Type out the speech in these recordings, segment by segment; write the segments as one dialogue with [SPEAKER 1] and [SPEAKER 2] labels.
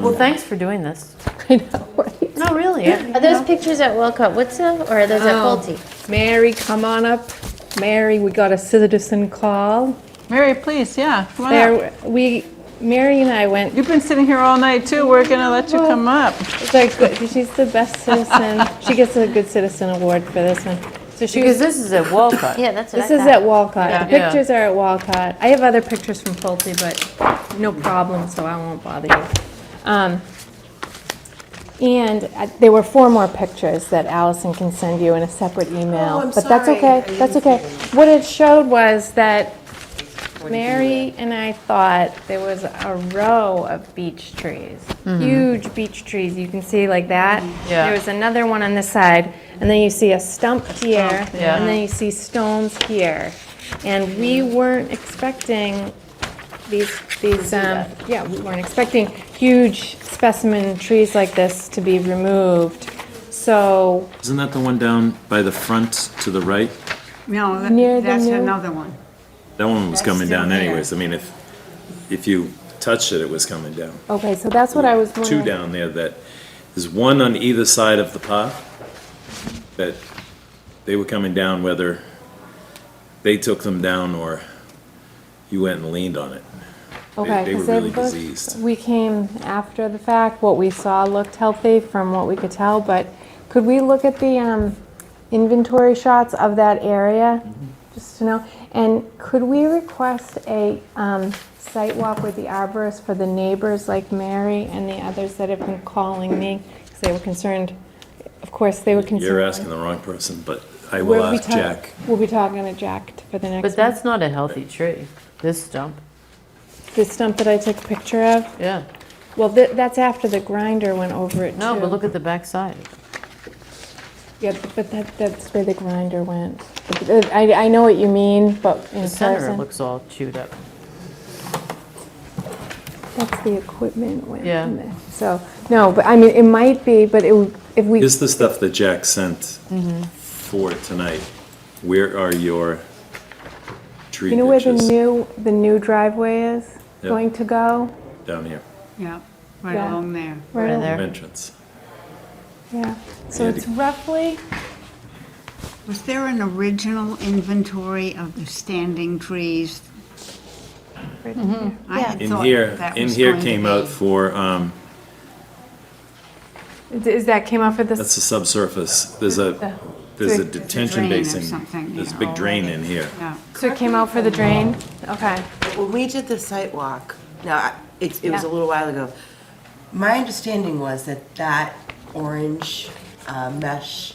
[SPEAKER 1] Well, thanks for doing this.
[SPEAKER 2] I know, right?
[SPEAKER 1] No, really.
[SPEAKER 3] Are those pictures at Wilco Woodsell or are those at
[SPEAKER 2] Oh.
[SPEAKER 3] Pulte?
[SPEAKER 2] Mary, come on up. Mary, we got a citizen call.
[SPEAKER 4] Mary, please, yeah, come on up.
[SPEAKER 2] There, we, Mary and I went,
[SPEAKER 4] You've been sitting here all night too, we're gonna let you come up.
[SPEAKER 2] it's like, good- she's the best citizen. She gets a good citizen award for this one. So she
[SPEAKER 1] Because
[SPEAKER 2] was,
[SPEAKER 1] this is at Walcott.
[SPEAKER 3] Yeah, that's what I
[SPEAKER 2] this
[SPEAKER 3] thought.
[SPEAKER 2] is at Walcott. The
[SPEAKER 1] Yeah.
[SPEAKER 2] pictures are at Walcott. I have other pictures from Pulte, but no problem, so I won't bother you. Um, And uh, there were four more pictures that Allison can send you in a separate email.
[SPEAKER 5] Oh, I'm
[SPEAKER 2] But that's
[SPEAKER 5] sorry.
[SPEAKER 2] okay,
[SPEAKER 5] I
[SPEAKER 2] that's
[SPEAKER 5] didn't see
[SPEAKER 2] okay. What it showed was that Mary and I thought there was a row of beech trees, huge beech trees. You can see like that.
[SPEAKER 1] Mm-hmm. Yeah.
[SPEAKER 2] There was another one on this side, and then you see a stump here,
[SPEAKER 1] yeah.
[SPEAKER 2] and then you see stones here. And we weren't expecting these, these, um, yeah, we weren't expecting huge specimen trees like this to be removed. So
[SPEAKER 6] Isn't that the one down by the front to the right?
[SPEAKER 5] No,
[SPEAKER 2] Near
[SPEAKER 5] that-
[SPEAKER 2] the
[SPEAKER 5] that's
[SPEAKER 2] new-
[SPEAKER 5] another one.
[SPEAKER 6] That one was coming
[SPEAKER 5] still
[SPEAKER 6] down
[SPEAKER 5] there.
[SPEAKER 6] anyways. I mean, if, if you touched it, it was coming down.
[SPEAKER 2] Okay, so that's what I was
[SPEAKER 6] Two
[SPEAKER 2] wondering.
[SPEAKER 6] down there that, there's one on either side of the path that they were coming down whether they took them down or you went and leaned on it.
[SPEAKER 2] Okay,
[SPEAKER 6] they were
[SPEAKER 2] 'cause they
[SPEAKER 6] really
[SPEAKER 2] looked-
[SPEAKER 6] diseased.
[SPEAKER 2] We came after the fact, what we saw looked healthy from what we could tell, but could we look at the um, inventory shots of that area?
[SPEAKER 6] Mm-hmm.
[SPEAKER 2] Just to know, and could we request a um, site walk with the arborist for the neighbors like Mary and the others that have been calling me? Because they were concerned, of course, they were concerned.
[SPEAKER 6] You're asking the wrong person, but I will
[SPEAKER 2] We'll be
[SPEAKER 6] ask
[SPEAKER 2] talk-
[SPEAKER 6] Jack.
[SPEAKER 2] We'll be talking to Jack t- for the next one.
[SPEAKER 1] But that's not a healthy tree, this stump.
[SPEAKER 2] The stump that I took a picture of?
[SPEAKER 1] Yeah.
[SPEAKER 2] Well, th- that's after the grinder went over it, too.
[SPEAKER 1] No, but look at the backside.
[SPEAKER 2] Yeah, but that, that's where the grinder went. But, uh, I, I know what you mean, but in
[SPEAKER 1] The center
[SPEAKER 2] person,
[SPEAKER 1] looks all chewed up.
[SPEAKER 2] that's the equipment went
[SPEAKER 1] Yeah.
[SPEAKER 2] in there. So, no, but I mean, it might be, but it, would- if we,
[SPEAKER 6] Is the stuff that Jack sent for tonight, where are your tree
[SPEAKER 2] you know where the
[SPEAKER 6] pictures?
[SPEAKER 2] new, the new driveway is
[SPEAKER 6] Yeah.
[SPEAKER 2] going to go?
[SPEAKER 6] Down here,
[SPEAKER 5] Yeah, right
[SPEAKER 2] Yeah.
[SPEAKER 5] along there.
[SPEAKER 1] Right
[SPEAKER 2] Where-
[SPEAKER 1] in there.
[SPEAKER 6] entrance.
[SPEAKER 2] Yeah, so
[SPEAKER 6] Yeah,
[SPEAKER 2] it's
[SPEAKER 6] the-
[SPEAKER 2] roughly,
[SPEAKER 5] Was there an original inventory of the standing trees?
[SPEAKER 1] Mm-hmm.
[SPEAKER 5] I had
[SPEAKER 6] In
[SPEAKER 5] thought
[SPEAKER 6] here,
[SPEAKER 5] that
[SPEAKER 6] in
[SPEAKER 5] was
[SPEAKER 6] here
[SPEAKER 5] going to
[SPEAKER 6] came out
[SPEAKER 5] be-
[SPEAKER 6] for, um,
[SPEAKER 2] is that came out for
[SPEAKER 6] that's
[SPEAKER 2] this?
[SPEAKER 6] the subsurface, there's a, there's a
[SPEAKER 2] It's a
[SPEAKER 6] detention
[SPEAKER 5] drain or
[SPEAKER 6] basin.
[SPEAKER 5] something,
[SPEAKER 6] There's a
[SPEAKER 5] yeah,
[SPEAKER 6] big drain
[SPEAKER 5] already.
[SPEAKER 6] in here.
[SPEAKER 5] Yeah.
[SPEAKER 2] So it came out for the drain? Okay.
[SPEAKER 7] When we did the site walk, now, I- it, it was a
[SPEAKER 2] Yeah.
[SPEAKER 7] little while ago, my understanding was that that orange uh, mesh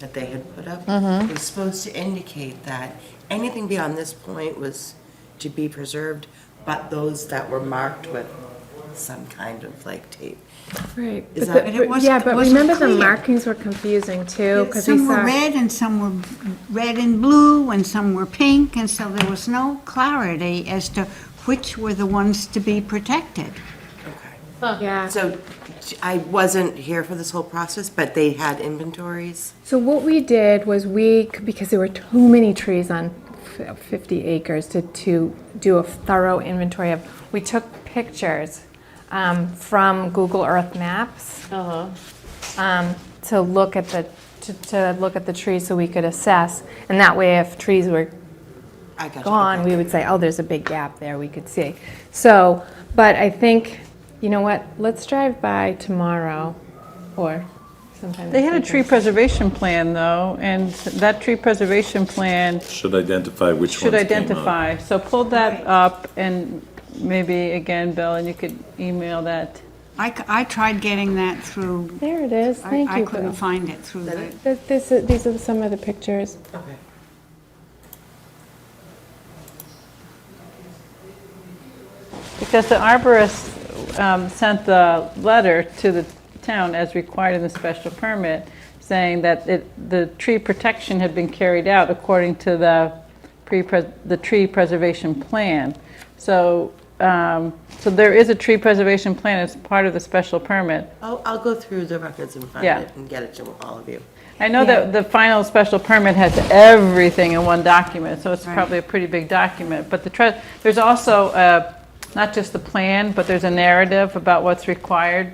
[SPEAKER 7] that they had put up
[SPEAKER 2] Mm-hmm.
[SPEAKER 7] was supposed to indicate that anything beyond this point was to be preserved, but those that were marked with some kind of like tape.
[SPEAKER 2] Right. But
[SPEAKER 7] Is that-
[SPEAKER 2] the-
[SPEAKER 7] And
[SPEAKER 5] it
[SPEAKER 2] but-
[SPEAKER 5] wasn't-
[SPEAKER 2] Yeah,
[SPEAKER 5] it
[SPEAKER 2] but
[SPEAKER 5] wasn't
[SPEAKER 2] remember the
[SPEAKER 5] clear.
[SPEAKER 2] markings were confusing, too, because we
[SPEAKER 5] Some were
[SPEAKER 2] saw,
[SPEAKER 5] red and some were red and blue and some were pink, and so there was no clarity as to which were the ones to be protected.
[SPEAKER 2] yeah.
[SPEAKER 7] So I wasn't here for this whole process, but they had inventories.
[SPEAKER 2] So what we did was we, because there were too many trees on f- 50 acres to, to do a thorough inventory of, we took pictures um, from Google Earth Maps
[SPEAKER 1] Uh-huh.
[SPEAKER 2] um, to look at the, to, to look at the trees so we could assess. And that way, if trees were
[SPEAKER 7] I got you.
[SPEAKER 2] gone, we would say, oh, there's a big gap there we could see. So, but I think, you know what, let's drive by tomorrow or sometime.
[SPEAKER 4] They
[SPEAKER 2] this
[SPEAKER 4] had a
[SPEAKER 2] weekend.
[SPEAKER 4] tree preservation plan though, and that tree preservation plan
[SPEAKER 6] Should identify which ones
[SPEAKER 4] should
[SPEAKER 6] came out.
[SPEAKER 4] identify. So pull that up and maybe again, Bill, and you could email that.
[SPEAKER 5] I, c- I tried getting that through,
[SPEAKER 2] There it is,
[SPEAKER 5] I
[SPEAKER 2] thank you.
[SPEAKER 5] I couldn't
[SPEAKER 2] Bill.
[SPEAKER 5] find it through the,
[SPEAKER 2] Th- This, is- these are some of the pictures.
[SPEAKER 7] Okay.
[SPEAKER 4] Because the arborist um, sent the letter to the town as required in the special permit, saying that it, the tree protection had been carried out according to the pre, the tree preservation plan. So, um, so there is a tree preservation plan as part of the special permit.
[SPEAKER 7] I'll, I'll go through the records and find
[SPEAKER 4] Yeah.
[SPEAKER 7] it and get it to all of you.
[SPEAKER 4] I know that the final special permit has everything in one document, so it's probably a pretty big document, but the, tre- there's also a not just the plan, but there's a narrative about what's required